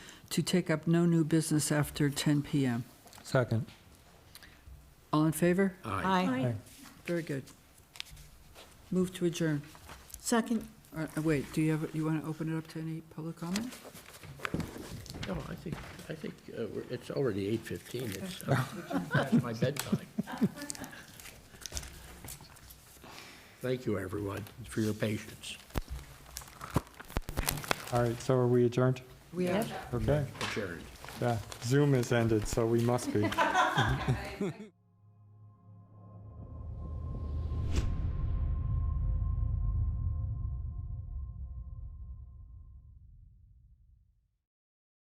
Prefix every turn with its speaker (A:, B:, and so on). A: to take up no new business after 10 PM.
B: Second.
A: All in favor?
C: Aye.
A: Very good. Move to adjourn.
C: Second,
A: Uh, Wait, do you have, you want to open it up to any public comment?
D: No, I think, I think uh, we're- it's already eight fifteen, it's uh, past my bedtime. Thank you, everyone, for your patience.
B: All right, so are we adjourned?
A: We have.
B: Okay,
D: Adjourned.
B: yeah. Zoom is ended, so we must be.